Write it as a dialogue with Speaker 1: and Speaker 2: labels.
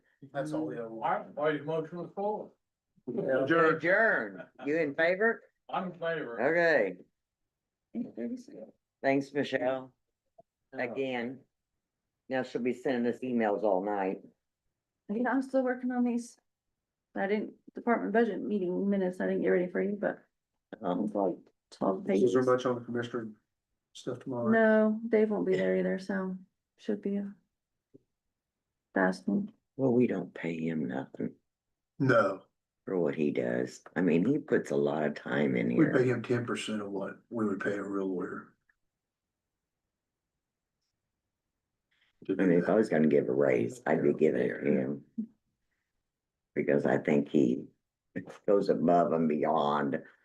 Speaker 1: That's all the other one.
Speaker 2: I, I motion was full.
Speaker 1: Adjourn.
Speaker 3: Adjourn. You in favor?
Speaker 2: I'm in favor.
Speaker 3: Okay. Thanks, Michelle, again. Now she'll be sending us emails all night.
Speaker 4: Yeah, I'm still working on these. I didn't, department budget meeting minutes, I didn't get ready for you, but
Speaker 3: Um,
Speaker 4: it's like twelve
Speaker 1: Is
Speaker 4: pages.
Speaker 1: there much on the commissioner stuff tomorrow?
Speaker 4: No, Dave won't be there either, so should be a fast one.
Speaker 3: well, we don't pay him nothing
Speaker 1: No,
Speaker 3: for what he does. I mean, he puts a lot of time in
Speaker 1: we pay
Speaker 3: here.
Speaker 1: him ten percent of what we would pay a real lawyer. To
Speaker 3: I
Speaker 1: do
Speaker 3: mean, if I
Speaker 1: that.
Speaker 3: was gonna give a raise, I'd be giving it to him. Because I think he goes above and beyond